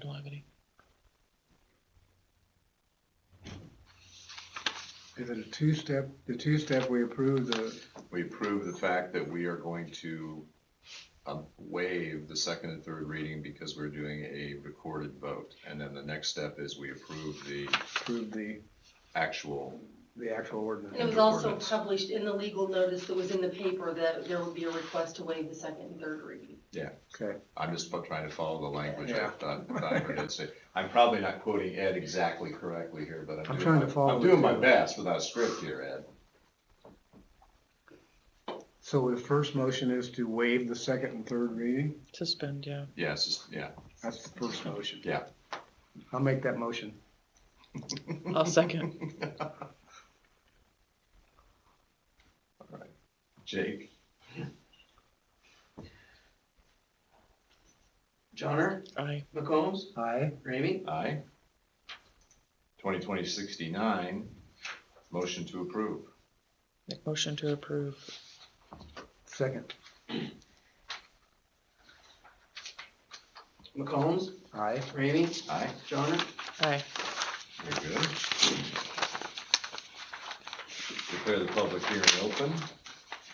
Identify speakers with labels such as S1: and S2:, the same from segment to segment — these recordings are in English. S1: don't have any.
S2: Is it a two-step, the two-step, we approve the,
S3: We approve the fact that we are going to um, waive the second and third reading because we're doing a recorded vote. And then the next step is we approve the
S2: approve the,
S3: actual,
S2: the actual
S4: And it
S2: ordinance?
S4: was also
S3: Ordinance.
S4: published in the legal notice that was in the paper that there would be a request to waive the second and third reading.
S2: Okay,
S3: I'm just fo- trying to follow the language
S2: Yeah.
S3: I've done, that I heard it say. I'm probably not quoting Ed exactly correctly here, but
S2: I'm trying
S3: I'm doing,
S2: to
S3: my-
S2: follow
S3: I'm
S2: it
S3: doing my
S2: too.
S3: best without a script here, Ed.
S2: so the first motion is to waive the second and third reading?
S1: Suspend, yeah.
S3: Yes, it's- yeah,
S2: That's the first motion.
S3: Yeah.
S2: I'll make that motion.
S1: I'll second.
S3: Jake,
S5: Johnner,
S1: I,
S5: McCombs,
S2: Aye?
S5: Ramey,
S3: aye. Twenty twenty sixty-nine, motion to approve.
S1: make motion to approve.
S2: Second?
S5: McCombs,
S2: Aye?
S5: Ramey,
S3: Aye,
S5: Johnner,
S1: I,
S3: very good. Declare the public hearing open.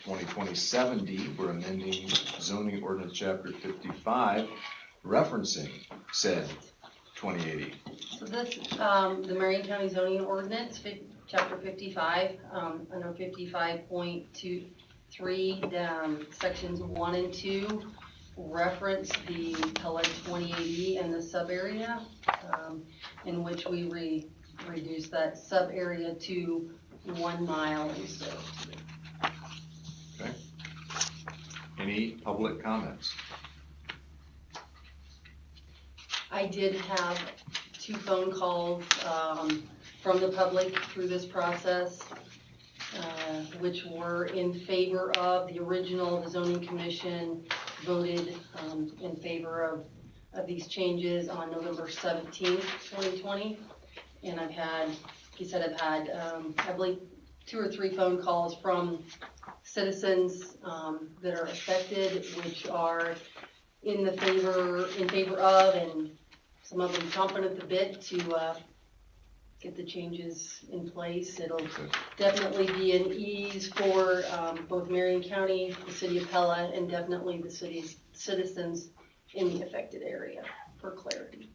S3: Twenty twenty seventy, we're amending zoning ordinance chapter fifty-five, referencing said twenty eighty.
S4: So this, um, the Marion County zoning ordinance, fif- chapter fifty-five, um, under fifty-five point two, three, um, sections one and two, reference the LA twenty eighty and the subarea, um, in which we re, reduce that subarea to one mile instead of two.
S3: Any public comments?
S4: I did have two phone calls um, from the public through this process, uh, which were in favor of the original, the zoning commission voted um, in favor of, of these changes on November seventeenth, twenty twenty. And I've had, he said I've had, um, I believe, two or three phone calls from citizens um, that are affected, which are in the favor, in favor of, and some of them chomping at the bit to, uh, get the changes in place. It'll definitely be an ease for, um, both Marion County, the city of Pella, and definitely the city's citizens in the affected area, for clarity.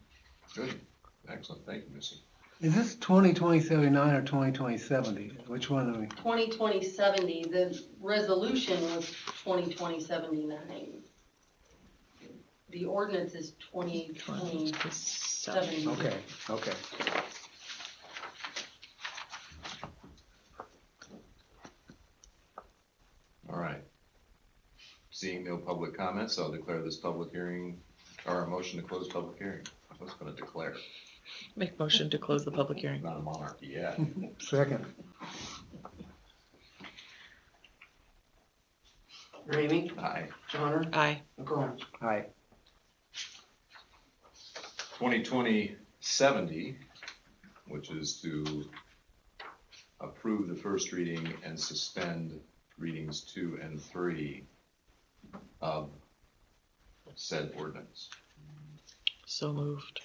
S3: Good, excellent, thank you, Missy.
S2: Is this twenty twenty seventy-nine or twenty twenty seventy? Which one are we?
S4: Twenty twenty seventy, the resolution was twenty twenty seventy-nine. The ordinance is twenty twenty seventy.
S2: Okay, okay.
S3: All right. Seeing no public comments, I'll declare this public hearing, or a motion to close public hearing. I was gonna declare,
S1: Make motion to close the public hearing.
S3: not a monarchy yet.
S2: Second?
S5: Ramey,
S3: Aye.
S5: Johnner,
S1: I,
S5: McCombs.
S2: Aye.
S3: Twenty twenty seventy, which is to approve the first reading and suspend readings two and three of said ordinance.
S1: so moved.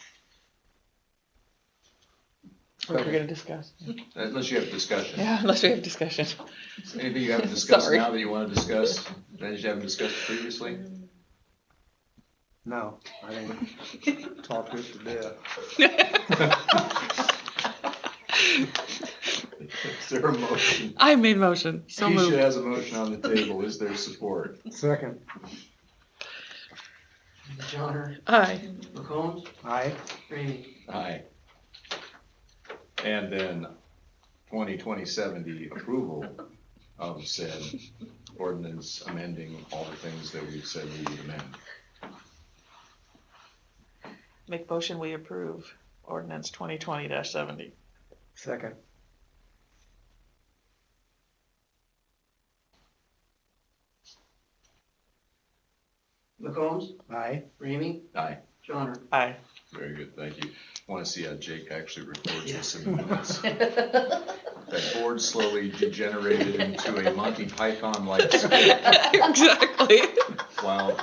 S1: We're gonna discuss.
S3: Unless you have discussion.
S1: Yeah, unless we have discussion.
S3: Anything you haven't discussed
S1: Sorry.
S3: now that you wanna discuss, that you haven't discussed previously?
S2: No, I didn't talk this to death.
S3: Is there a motion?
S1: I made motion, so
S3: Keisha
S1: moved.
S3: has a motion on the table. Is there support?
S2: Second?
S5: Johnner,
S1: I,
S5: McCombs,
S2: Aye?
S5: Ramey,
S3: Aye. And then twenty twenty seventy approval of said ordinance amending all the things that we've said we would amend.
S1: make motion, we approve ordinance twenty twenty seventy.
S2: Second?
S5: McCombs,
S2: Aye?
S5: Ramey,
S3: Aye,
S5: Johnner.
S1: I,
S3: very good, thank you. Want to see how Jake actually records this in minutes. That board slowly degenerated into a Monty Python-like script
S1: exactly.
S3: while